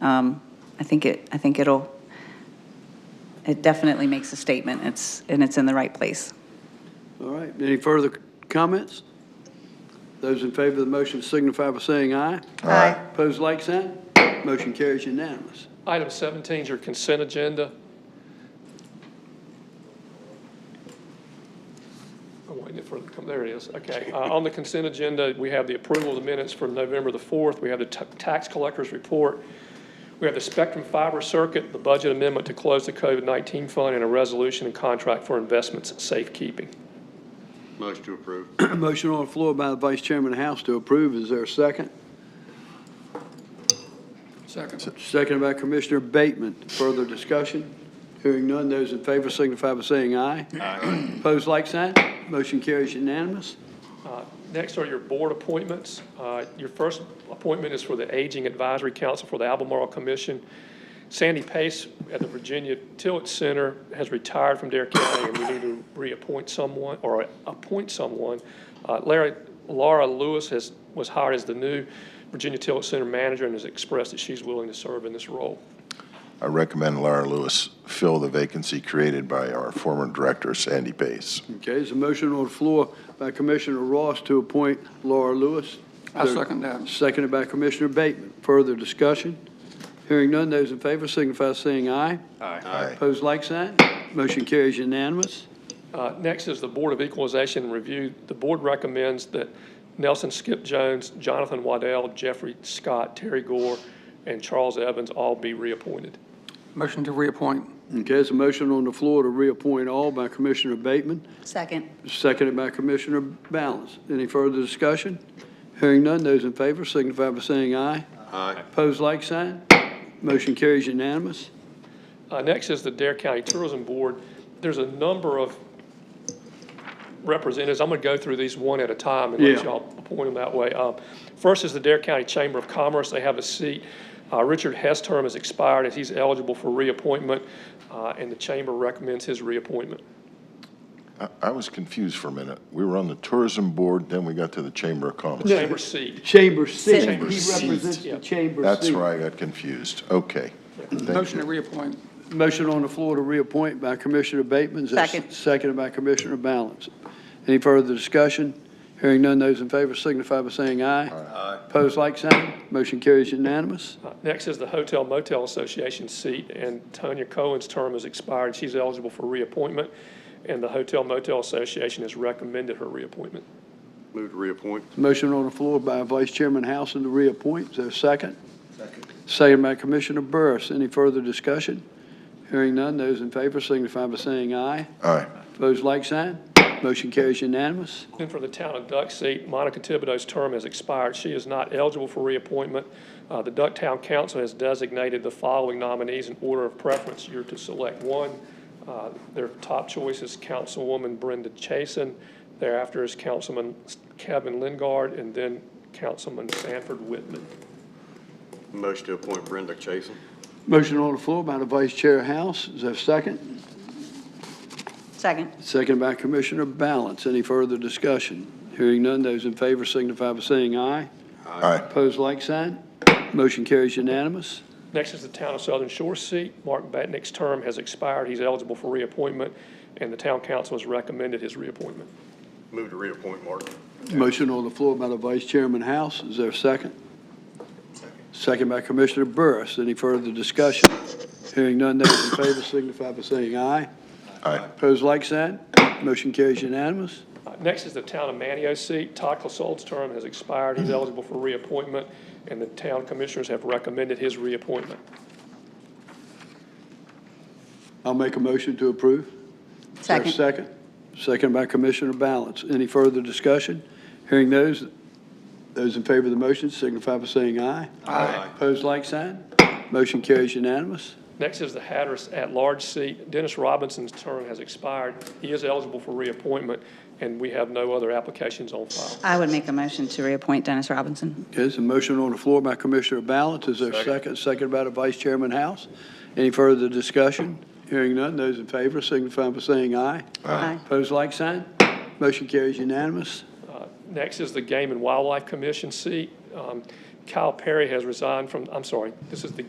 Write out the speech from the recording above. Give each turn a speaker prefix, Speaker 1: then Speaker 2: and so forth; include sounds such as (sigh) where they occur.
Speaker 1: Um, I think it, I think it'll, it definitely makes a statement, it's, and it's in the right place.
Speaker 2: All right, any further comments? Those in favor of the motion signify by saying aye. Aye. Pose like sign. Motion carries unanimous. (clears throat)
Speaker 3: Item 17 is your consent agenda. I'm waiting for it to come, there it is, okay. Uh, On the consent agenda, we have the approval of the minutes for November the 4th, we have the ta- tax collector's report, we have the Spectrum Fiber Circuit, the budget amendment to close the COVID-19 fund, and a resolution and contract for investments and safekeeping.
Speaker 4: Motion to approve.
Speaker 2: Motion on the floor by the Vice Chairman of the House to approve. Is there a second?
Speaker 3: Second.
Speaker 2: Second by Commissioner Bateman. Further discussion? Hearing none, those in favor signify by saying aye. Aye. (clears throat) Pose like sign. Motion carries unanimous.
Speaker 3: Uh, Next are your board appointments. Uh, Your first appointment is for the Aging Advisory Council for the Albemarle Commission. Sandy Pace at the Virginia Tillett Center has retired from Dare County, and we need to reappoint someone, or appoint someone. Uh, Larry, Laura Lewis has, was hired as the new Virginia Tillett Center manager and has expressed that she's willing to serve in this role.
Speaker 5: I recommend Laura Lewis fill the vacancy created by our former director, Sandy Pace.
Speaker 2: Okay, there's a motion on the floor by Commissioner Ross to appoint Laura Lewis.
Speaker 6: I second that.
Speaker 2: Seconded by Commissioner Bateman. Further discussion? Hearing none, those in favor signify by saying aye.
Speaker 5: Aye.
Speaker 2: Pose like sign. Motion carries unanimous.
Speaker 3: Uh, Next is the Board of Equalization and Review. The board recommends that Nelson Skip Jones, Jonathan Waddell, Jeffrey Scott, Terry Gore, and Charles Evans all be reappointed.
Speaker 6: Motion to reappoint.
Speaker 2: Okay, there's a motion on the floor to reappoint all by Commissioner Bateman,
Speaker 1: Second.
Speaker 2: seconded by Commissioner Balance. Any further discussion? Hearing none, those in favor signify by saying aye.
Speaker 4: Aye.
Speaker 2: Pose like sign. Motion carries unanimous.
Speaker 3: Uh, Next is the Dare County Tourism Board. There's a number of representatives. I'm going to go through these one at a time and
Speaker 2: Yeah.
Speaker 3: let y'all appoint them that way. Uh, First is the Dare County Chamber of Commerce. They have a seat. Uh, Richard Hess' term has expired, and he's eligible for reappointment, uh, and the chamber recommends his reappointment.
Speaker 5: I- I was confused for a minute. We were on the tourism board, then we got to the Chamber of Commerce.
Speaker 3: Chamber seat.
Speaker 2: Chamber seat. He
Speaker 1: Chamber
Speaker 3: seat.
Speaker 2: represents
Speaker 3: Yeah.
Speaker 2: the chamber seat.
Speaker 5: That's where I got confused. Okay. Thank
Speaker 6: Motion to
Speaker 5: you.
Speaker 6: reappoint.
Speaker 2: Motion on the floor to reappoint by Commissioner Bateman. Is that
Speaker 1: Second.
Speaker 2: Seconded by Commissioner Balance. Any further discussion? Hearing none, those in favor signify by saying aye. Aye. Pose like sign. Motion carries unanimous.
Speaker 3: Uh, Next is the Hotel Motel Association seat, and Tonya Cohen's term has expired. She's eligible for reappointment, and the Hotel Motel Association has recommended her reappointment.
Speaker 4: Move to reappoint.
Speaker 2: Motion on the floor by Vice Chairman Housing to reappoint. Is there a second? Second. Seconded by Commissioner Burris. Any further discussion? Hearing none, those in favor signify by saying aye.
Speaker 5: Aye.
Speaker 2: Pose like sign. Motion carries unanimous.
Speaker 3: Then for the Town of Duck seat, Monica Thibodeau's term has expired. She is not eligible for reappointment. Uh, The Ducktown Council has designated the following nominees in order of preference. You're to select one. Uh, Their top choice is Councilwoman Brenda Chason. Thereafter is Councilman Kevin Lingard, and then Councilman Sanford Whitman.
Speaker 4: Motion to appoint Brenda Chason.
Speaker 2: Motion on the floor by the Vice Chair House. Is there a second?
Speaker 1: Second.
Speaker 2: Second by Commissioner Balance. Any further discussion? Hearing none, those in favor signify by saying aye.
Speaker 5: Aye.
Speaker 2: Opposed, like sign. Motion carries unanimous.
Speaker 3: Next is the Town of Southern Shore seat. Mark Batnick's term has expired. He's eligible for reappointment, and the town council has recommended his reappointment.
Speaker 4: Move to reappoint Mark.
Speaker 2: Motion on the floor by the Vice Chairman House. Is there a second? Second by Commissioner Burris. Any further discussion? Hearing none, those in favor signify by saying aye.
Speaker 5: Aye.
Speaker 2: Opposed, like sign. Motion carries unanimous.
Speaker 3: Uh, Next is the Town of Manio seat. Todd Clissold's term has expired. He's eligible for reappointment, and the town commissioners have recommended his reappointment.
Speaker 2: I'll make a motion to approve. Is there a
Speaker 1: Second.
Speaker 2: Second. Second by Commissioner Balance. Any further discussion? Hearing those, those in favor of the motion signify by saying aye.
Speaker 4: Aye.
Speaker 2: Opposed, like sign. Motion carries unanimous.
Speaker 3: Next is the Hatteras at-large seat. Dennis Robinson's term has expired. He is eligible for reappointment, and we have no other applications on file.
Speaker 1: I would make a motion to reappoint Dennis Robinson.
Speaker 2: Okay, there's a motion on the floor by Commissioner Balance. Is there a second? Second by the Vice Chairman House. Any further discussion? Hearing none, those in favor signify by saying aye.
Speaker 1: Aye.
Speaker 2: Opposed, like sign. Motion carries unanimous.
Speaker 3: Next is the Game and Wildlife Commission seat. Um, Kyle Perry has resigned from, I'm sorry, this is the